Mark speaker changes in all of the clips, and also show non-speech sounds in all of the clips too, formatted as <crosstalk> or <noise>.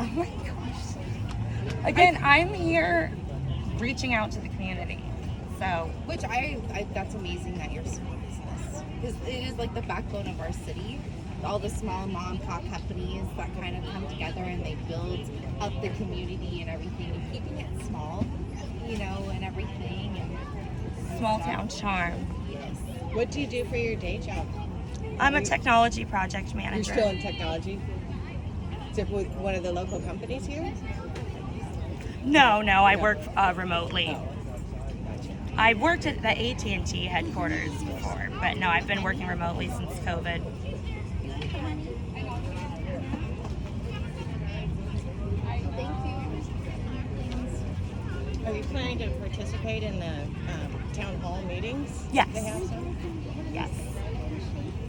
Speaker 1: Oh my gosh. Again, I'm here reaching out to the community. So
Speaker 2: Which I, I that's amazing that you're small business because it is like the backbone of our city. All the small mom and pop companies that kind of come together and they build up the community and everything, and keeping it small, you know, and everything. And
Speaker 1: small town charm.
Speaker 2: Yes.
Speaker 3: What do you do for your day job?
Speaker 1: I'm a technology project
Speaker 3: You're
Speaker 1: manager.
Speaker 3: still in technology? Is it with one of the local companies here?
Speaker 1: No, no, I work uh, remotely.
Speaker 3: Oh.
Speaker 1: I worked at the AT&T headquarters before, but no, I've been working remotely since COVID.
Speaker 3: Are you planning to participate in the um, town hall meetings?
Speaker 1: Yes.
Speaker 3: They have some?
Speaker 1: Yes,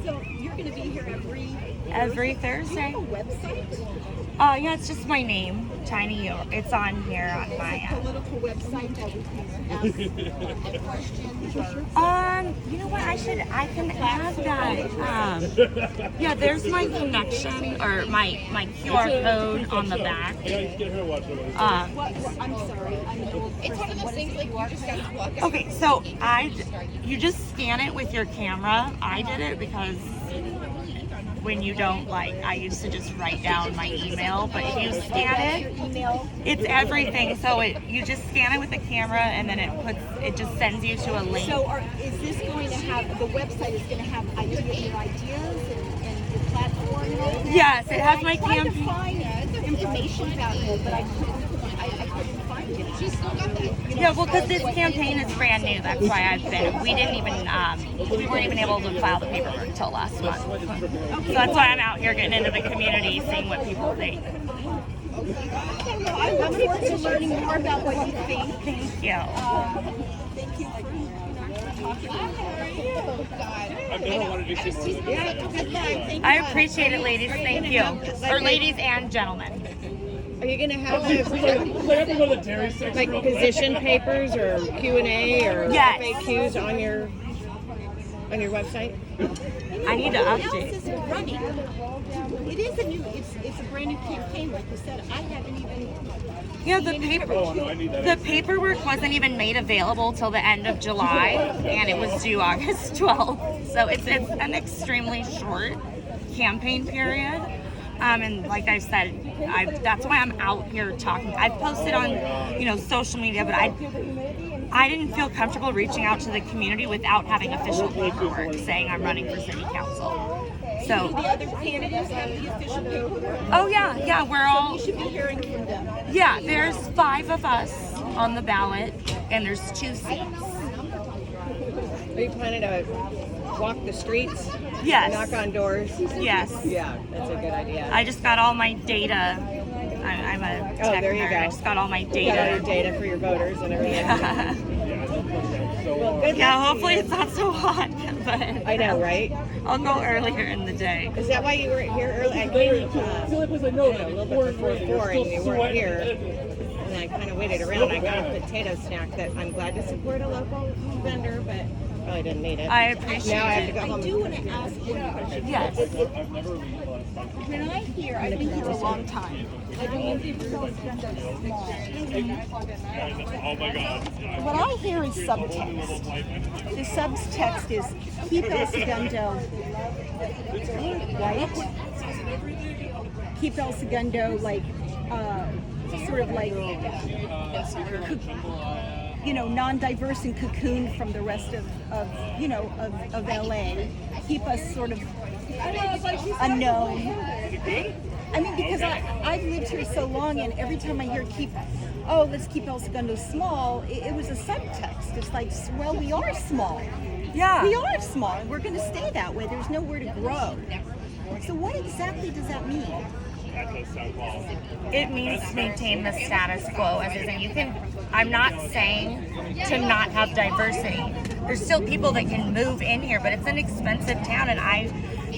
Speaker 4: So you're going to be here every
Speaker 1: every
Speaker 4: Do you
Speaker 1: Thursday.
Speaker 4: have a website?
Speaker 1: Uh, yeah, it's just my name, Tiny. Yor- It's on here on my uh,
Speaker 4: It's a
Speaker 1: app.
Speaker 4: political website that we <laughs> can ask questions or
Speaker 1: Um, you know what? I should. I can add that. Um, yeah, there's my connection or my my QR code on the back.
Speaker 5: Yeah, get her to watch it.
Speaker 1: Um,
Speaker 4: what, what- I'm sorry, I'm an old
Speaker 2: It's one of
Speaker 4: person.
Speaker 2: those
Speaker 4: What is
Speaker 2: things
Speaker 4: it?
Speaker 2: like you just gotta walk out.
Speaker 1: Okay, so I, you just scan it with your camera. I did it because when you don't like, I used to just write down my email, but if you scan it,
Speaker 4: Email.
Speaker 1: it's everything. So it, you just scan it with the camera, and then it puts, it just sends you to a link.
Speaker 4: So are, is this going to have, the website is going to have ideas, your ideas and, and your platform and all that?
Speaker 1: Yes, it has my
Speaker 4: I tried to
Speaker 1: campaign.
Speaker 4: find information about you, but I couldn't, I, I couldn't find it.
Speaker 2: She's still got that.
Speaker 1: Yeah, well, because this campaign is brand new. That's why I've been. We didn't even. Um, we weren't even able to file the paperwork until last month. So that's why I'm out here getting into the community, seeing what people think.
Speaker 4: I look forward to learning more about what you think.
Speaker 1: Thank you.
Speaker 5: I've never wanted to see more than this.
Speaker 3: Yeah, good luck. Thank
Speaker 1: I
Speaker 3: you.
Speaker 1: appreciate it, ladies. Thank you. Or ladies and gentlemen.
Speaker 3: Are you gonna have those,
Speaker 5: They have to go to the dairy section
Speaker 3: like
Speaker 5: real quick.
Speaker 3: position papers or Q and A or
Speaker 1: Yes.
Speaker 3: FAQs on your, on your website?
Speaker 1: I need to
Speaker 4: else
Speaker 1: update.
Speaker 4: is running. It is a new, it's, it's a brand new campaign, like you said, I haven't even,
Speaker 1: Yeah, the
Speaker 5: Oh,
Speaker 1: paper.
Speaker 5: no, I need that.
Speaker 1: The paperwork wasn't even made available till the end of July, and it was due August <laughs> 12th. So it's, it's an extremely short campaign period. Um, and like I said, I've, that's why I'm out here talking. I've posted on, you know, social media, but I I didn't feel comfortable reaching out to the community without having official paperwork saying I'm running for city council. So
Speaker 4: the other candidates have the official paperwork.
Speaker 1: Oh yeah, yeah, we're all
Speaker 4: You should be hearing from them.
Speaker 1: yeah, there's five of us on the ballot and there's two seats.
Speaker 3: Are you planning to walk the streets?
Speaker 1: Yes.
Speaker 3: Knock on doors?
Speaker 1: Yes.
Speaker 3: Yeah, that's a good idea.
Speaker 1: I just got all my data. I, I'm a tech
Speaker 3: Oh, there you
Speaker 1: nerd.
Speaker 3: go.
Speaker 1: I just got all my
Speaker 3: You Got all your
Speaker 1: data.
Speaker 3: data for your voters and <laughs> everything. Well,
Speaker 1: <laughs>
Speaker 3: good
Speaker 1: yeah,
Speaker 3: luck to
Speaker 1: hopefully
Speaker 3: you.
Speaker 1: it's not so hot, <laughs> but
Speaker 3: I know, right?
Speaker 1: I'll go earlier in the day.
Speaker 3: Is that why you were here early? I came uh,
Speaker 5: The only place I know that
Speaker 3: a
Speaker 5: it's
Speaker 3: little
Speaker 5: pouring
Speaker 3: bit before four
Speaker 5: rain,
Speaker 3: and
Speaker 5: it's
Speaker 3: you
Speaker 5: still
Speaker 3: weren't
Speaker 5: sweating.
Speaker 3: here. And I kind of waited around. I got a potato snack that I'm glad to support a local vendor, but probably didn't need it.
Speaker 1: I appreciate
Speaker 3: now I have to
Speaker 1: it.
Speaker 3: go
Speaker 4: I
Speaker 3: home.
Speaker 4: do want to ask one question.
Speaker 1: Yes.
Speaker 5: I've never read the last time.
Speaker 4: When I hear, I've been here a long time, I've been here since I was small.
Speaker 5: Oh my god.
Speaker 4: What I hear is subtext. The subtext is keep El Segundo, right? Keep El Segundo like, uh, sort of like, coc- you know, non-diverse and cocooned from the rest of, of you know, of, of LA. Keep us sort of unknown. I mean, because I, I've lived here so long, and every time I hear keep, oh, let's keep El Segundo small, it, it was a subtext. It's like, well, we are small.
Speaker 1: Yeah.
Speaker 4: We are small, and we're going to stay that way. There's nowhere to grow. So, what exactly does that mean?
Speaker 5: That does sound wild.
Speaker 1: it means to maintain the status quo as is and you can i'm not saying to not have diversity there's still people that can move in here but it's an expensive town and i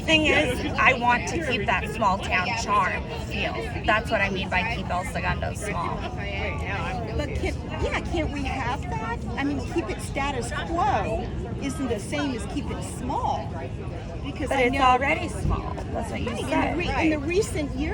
Speaker 1: thing is i want to keep that small town charm feel that's what i mean by keep el segundo small
Speaker 4: But can, yeah, can't we have that? I mean, keep it status quo isn't the same as keep it small. Because
Speaker 1: but
Speaker 4: I
Speaker 1: it's
Speaker 4: know
Speaker 1: already small that's what you
Speaker 4: in the,
Speaker 1: said
Speaker 4: re- in the recent years.